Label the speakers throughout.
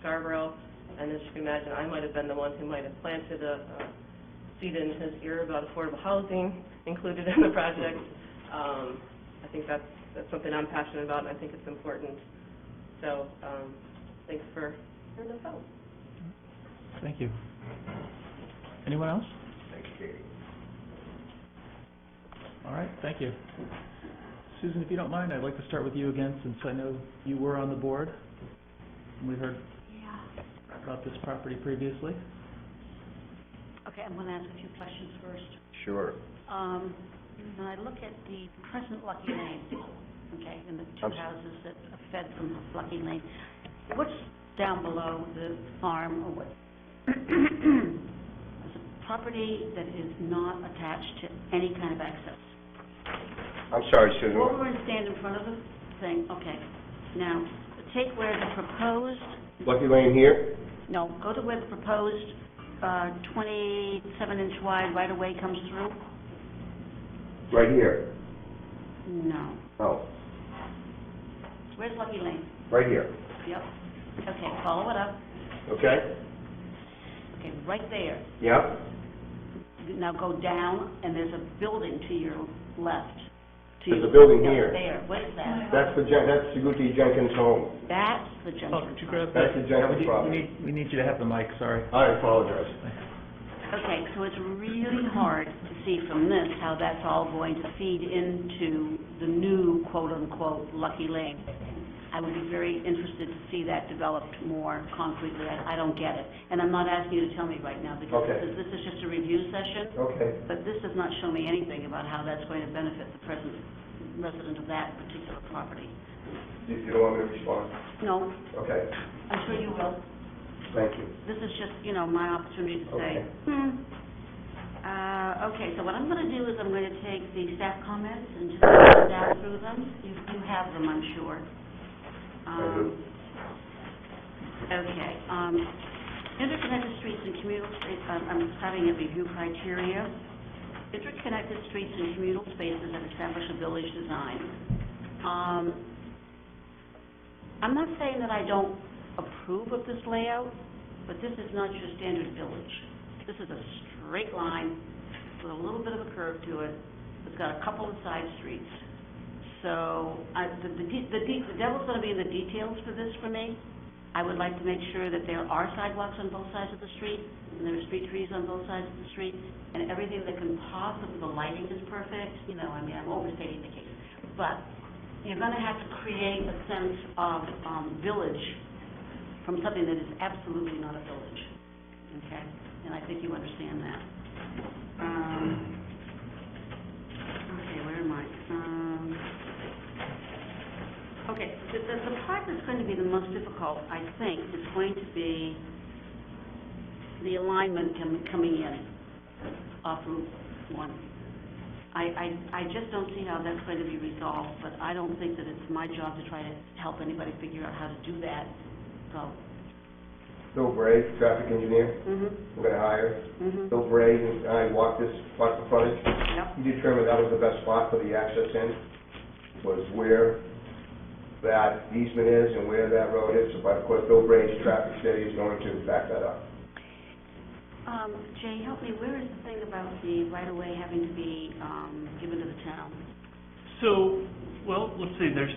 Speaker 1: Scarborough, and as you can imagine, I might have been the one who might have planted a uh, seed in his ear about affordable housing included in the project. Um, I think that's, that's something I'm passionate about, and I think it's important. So, um, thanks for hearing us out.
Speaker 2: Thank you. Anyone else?
Speaker 3: Thanks, Katie.
Speaker 2: All right, thank you. Susan, if you don't mind, I'd like to start with you again, since I know you were on the board. and We heard
Speaker 4: Yeah.
Speaker 2: about this property previously.
Speaker 4: Okay, I'm going to ask a few questions first.
Speaker 3: Sure.
Speaker 4: Um, When I look at the present Lucky Lane, okay, and the
Speaker 3: I'm
Speaker 4: two
Speaker 3: s-
Speaker 4: houses that are fed from Lucky Lane, what's down below the farm or what? It's a property that is not attached to any kind of access.
Speaker 3: I'm sorry, Susan.
Speaker 4: Well, we're going to stand in front of the thing, okay. Now, take where the proposed
Speaker 3: Lucky Lane here?
Speaker 4: No, go to where the proposed uh, 27-inch wide right-of-way comes through?
Speaker 3: Right here.
Speaker 4: No.
Speaker 3: Oh,
Speaker 4: Where's Lucky Lane?
Speaker 3: right here.
Speaker 4: Yep. Okay, follow it up.
Speaker 3: Okay?
Speaker 4: Okay, right there.
Speaker 3: Yep.
Speaker 4: Now go down, and there's a building to your left. To
Speaker 3: There's
Speaker 4: your-
Speaker 3: a building
Speaker 4: no,
Speaker 3: here.
Speaker 4: There, what is that?
Speaker 3: That's the, Jen- that's Saguti Jenkins' home.
Speaker 4: That's the junction.
Speaker 2: Oh,
Speaker 3: That's the Jenkins
Speaker 2: We
Speaker 3: property.
Speaker 2: need, we need you to have the mic, sorry.
Speaker 3: I apologize.
Speaker 4: Okay, so it's really hard to see from this how that's all going to feed into the new quote-unquote Lucky Lane. I would be very interested to see that developed more concretely. I I don't get it. And I'm not asking you to tell me right now because
Speaker 3: Okay.
Speaker 4: this is- this is just a review session,
Speaker 3: Okay.
Speaker 4: but this does not show me anything about how that's going to benefit the present resident of that particular property.
Speaker 3: You you don't want me to respond?
Speaker 4: No,
Speaker 3: Okay,
Speaker 4: I'm sure you will.
Speaker 3: thank you.
Speaker 4: This is just, you know, my opportunity to say,
Speaker 3: Okay.
Speaker 4: hmm. Uh, okay, so what I'm gonna do is I'm gonna take the staff comments and just go down through them. You, you have them, I'm sure. Um, Okay, um, interconnected streets and communal space, I'm, I'm starting at review criteria. Interconnected streets and communal spaces that establish a village design. Um, I'm not saying that I don't approve of this layout, but this is not your standard village. This is a straight line with a little bit of a curve to it. It's got a couple of side streets. So, I, the, the, de- the, de- the devil's gonna be in the details for this for me. I would like to make sure that there are sidewalks on both sides of the street, and there are street trees on both sides of the street, and everything that can possibly, the lighting is perfect, you know, I mean, I'm overstating the case. But you're gonna have to create a sense of, um, village from something that is absolutely not a village, okay? And I think you understand that. Um, okay, where am I? Um, okay, the, the, the part that's going to be the most difficult, I think, is going to be the alignment com- coming in off Route one. I, I, I just don't see how that's going to be resolved, but I don't think that it's my job to try to help anybody figure out how to do that, so.
Speaker 3: Bill Bray, traffic engineer,
Speaker 4: Mm-hmm,
Speaker 3: I'm gonna hire.
Speaker 4: mm-hmm,
Speaker 3: Bill Bray and I walked this, walked the frontage.
Speaker 4: yep,
Speaker 3: He determined that was the best spot for the access in, was where that easement is and where that road is. But of course, Bill Bray's traffic study is going to back that up.
Speaker 4: Um, Jay, help me, where is the thing about the right-of-way having to be, um, given to the town?
Speaker 5: So, well, let's see, there's,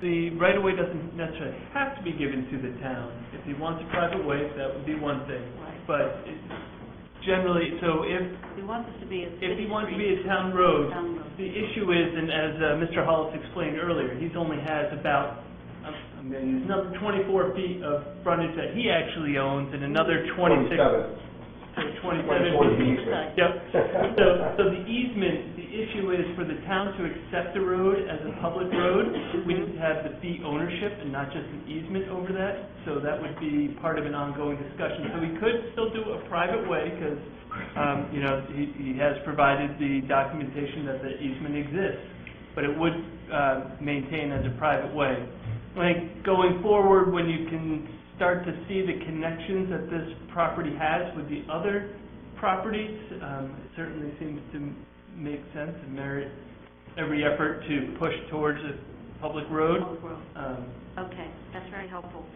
Speaker 5: the right-of-way doesn't necessarily have to be given to the town. If he wants a private way, that would be one thing,
Speaker 4: Right.
Speaker 5: but it- generally, so if,
Speaker 4: We want this to be a
Speaker 5: if
Speaker 4: city
Speaker 5: he wants to
Speaker 4: street,
Speaker 5: be a town road,
Speaker 4: town road.
Speaker 5: the issue is, and as uh, Mr. Hollis explained earlier, he's only has about, I'm, I'm gonna use another twenty-four feet of frontage that he actually owns and another twenty-six.
Speaker 3: Twenty-seven.
Speaker 5: Twenty-seven.
Speaker 3: Twenty-four
Speaker 5: feet.
Speaker 3: feet.
Speaker 4: Sorry.
Speaker 5: Yep, so, so the easement, the issue is for the town to accept the road as a public road, we need to have the fee ownership and not just an easement over that, so that would be part of an ongoing discussion. So we could still do a private way, because, um, you know, he, he has provided the documentation that the easement exists, but it would, uh, maintain as a private way. Like, going forward, when you can start to see the connections that this property has with the other properties, um, it certainly seems to m- make sense and merit every effort to push towards a public road.
Speaker 4: Oak Grove.
Speaker 5: Um,
Speaker 4: Okay, that's very helpful.